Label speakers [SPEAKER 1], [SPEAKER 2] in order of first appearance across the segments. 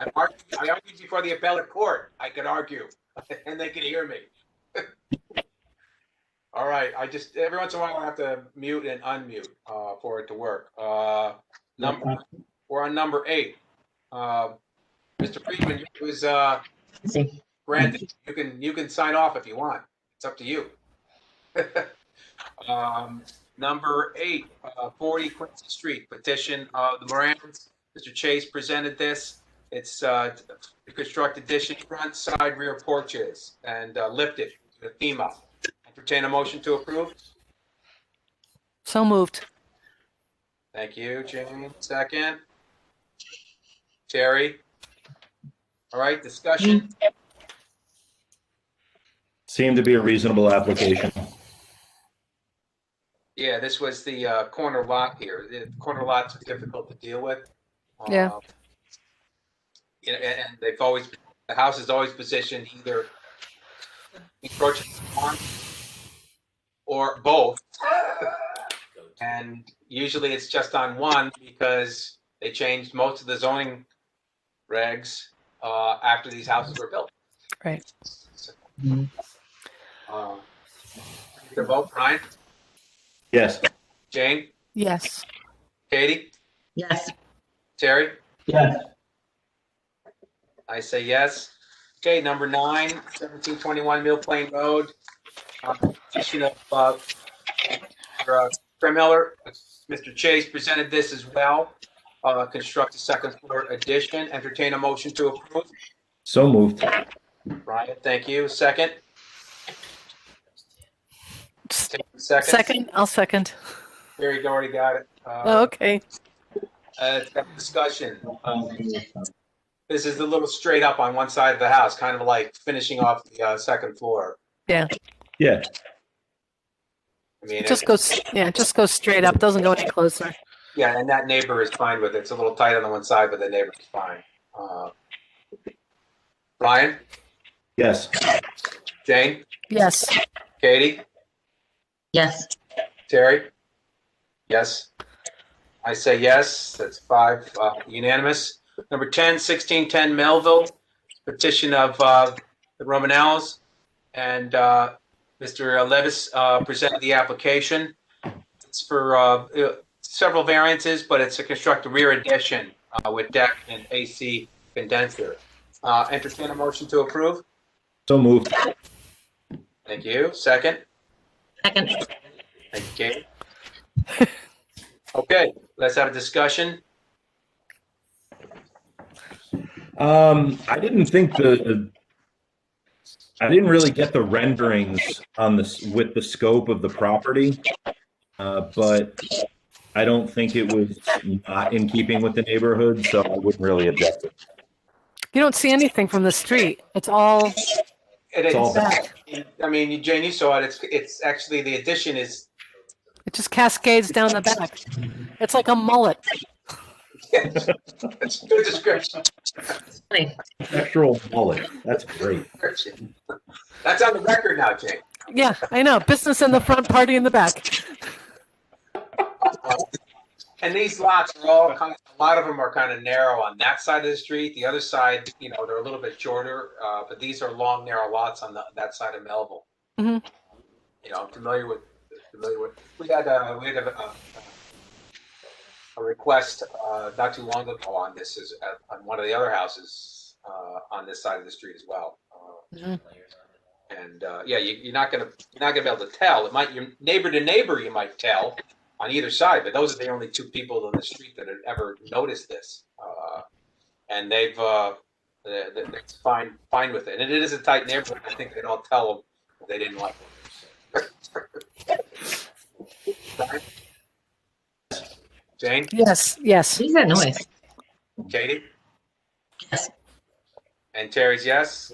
[SPEAKER 1] I argued before the appellate court. I could argue, and they could hear me. All right, I just, every once in a while, I have to mute and unmute uh, for it to work. Uh, Number, we're on number eight. Uh, Mr. Friedman, it was uh, granted, you can, you can sign off if you want. It's up to you. Um, Number eight, uh, 40 Quincy Street, petition of the Morans. Mr. Chase presented this. It's uh, to construct addition front, side, rear porches and uh, lift it to the FEMA. Entertain a motion to approve.
[SPEAKER 2] So moved.
[SPEAKER 1] Thank you, Jane. Second. Terry. All right, discussion.
[SPEAKER 3] Seemed to be a reasonable application.
[SPEAKER 1] Yeah, this was the uh, corner lot here. The corner lots are difficult to deal with.
[SPEAKER 2] Yeah.
[SPEAKER 1] Um, You know, and and they've always, the house is always positioned either encroaching on or both. And usually it's just on one because they changed most of the zoning regs uh, after these houses were built.
[SPEAKER 2] Right.
[SPEAKER 4] Mhm.
[SPEAKER 1] Um, The vote, Brian,
[SPEAKER 3] Yes,
[SPEAKER 1] Jane,
[SPEAKER 2] Yes.
[SPEAKER 1] Katie,
[SPEAKER 4] Yes.
[SPEAKER 1] Terry?
[SPEAKER 4] Yes.
[SPEAKER 1] I say yes. Okay, number nine, 1721 Mill Plain Road. Uh, Petition of, uh, for, uh, Trim Miller, Mr. Chase presented this as well. Uh, Construct a second floor addition, entertain a motion to approve.
[SPEAKER 3] so moved.
[SPEAKER 1] Brian, thank you. Second?
[SPEAKER 2] S-
[SPEAKER 1] Second?
[SPEAKER 2] Second, I'll second.
[SPEAKER 1] There you go, already got it.
[SPEAKER 2] Oh,
[SPEAKER 1] Uh,
[SPEAKER 2] Okay.
[SPEAKER 1] uh, it's got Discussion. This is a little straight up on one side of the house, kind of like finishing off the uh, second floor.
[SPEAKER 3] Yeah,
[SPEAKER 1] I mean,
[SPEAKER 2] It
[SPEAKER 1] it's-
[SPEAKER 2] just goes, yeah, it just goes straight up. Doesn't go any closer.
[SPEAKER 1] Yeah, and that neighbor is fine with it. It's a little tight on the one side, but the neighbor's fine. Uh, Brian,
[SPEAKER 3] yes,
[SPEAKER 1] Jane,
[SPEAKER 2] Yes.
[SPEAKER 1] Katie,
[SPEAKER 4] Yes.
[SPEAKER 1] Terry? Yes? I say yes. That's five uh, unanimous. Number 10, 1610 Melville, petition of uh, the Romanells. And uh, Mr. Levis uh, presented the application. It's for uh, several variances, but it's to construct a rear addition uh, with deck and AC condenser. Uh, Entertain a motion to approve.
[SPEAKER 3] so moved.
[SPEAKER 1] Thank you. Second?
[SPEAKER 4] Second.
[SPEAKER 1] Thank you, Kate. Okay, let's have a discussion.
[SPEAKER 3] Um, I didn't think the, I didn't really get the renderings on this, with the scope of the property. Uh, but I don't think it was not in keeping with the neighborhood, so I wouldn't really object.
[SPEAKER 2] You don't see anything from the street. It's all
[SPEAKER 1] It
[SPEAKER 3] It's all
[SPEAKER 1] is,
[SPEAKER 2] back.
[SPEAKER 1] I mean, Jane, you saw it, it's, it's actually, the addition is,
[SPEAKER 2] It just cascades down the back. It's like a mullet.
[SPEAKER 1] it's a good description.
[SPEAKER 3] Natural bullet, that's great.
[SPEAKER 1] description. That's on the record now, Jane.
[SPEAKER 2] Yeah, I know. Business in the front, party in the back.
[SPEAKER 1] And these lots are all kind of, a lot of them are kind of narrow on that side of the street. The other side, you know, they're a little bit shorter, uh, but these are long, narrow lots on the, that side of Melville. You
[SPEAKER 2] Mhm.
[SPEAKER 1] know, I'm familiar with, familiar with, we had, uh, we had a, a, a request, uh, not too long ago on this is, uh, on one of the other houses, uh, on this side of the street as well. Uh,
[SPEAKER 2] Mhm.
[SPEAKER 1] And, uh, yeah, you, you're not gonna, you're not gonna be able to tell. It might, your neighbor to neighbor, you might tell on either side, but those are the only two people on the street that have ever noticed this. Uh, and they've, uh, they're, they're they're fine, fine with it. And it is a tight neighborhood. I think they'd all tell them if they didn't like it. Jane,
[SPEAKER 2] Yes, yes.
[SPEAKER 4] These are noise.
[SPEAKER 1] Katie?
[SPEAKER 4] Yes.
[SPEAKER 1] And Terry's yes.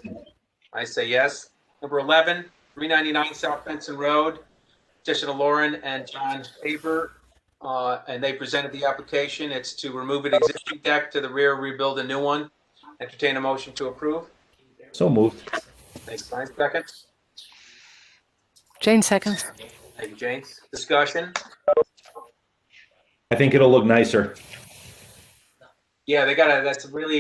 [SPEAKER 1] I say yes. Number 11, 399 South Benson Road, petition of Lauren and John Faber. uh, And they presented the application. It's to remove an existing deck to the rear, rebuild a new one. Entertain a motion to approve.
[SPEAKER 3] So moved.
[SPEAKER 1] Thanks, Brian. Second.
[SPEAKER 2] Jane seconds.
[SPEAKER 1] Thank you, Jane. Discussion?
[SPEAKER 3] I think it'll look nicer.
[SPEAKER 1] Yeah, they got to, that's really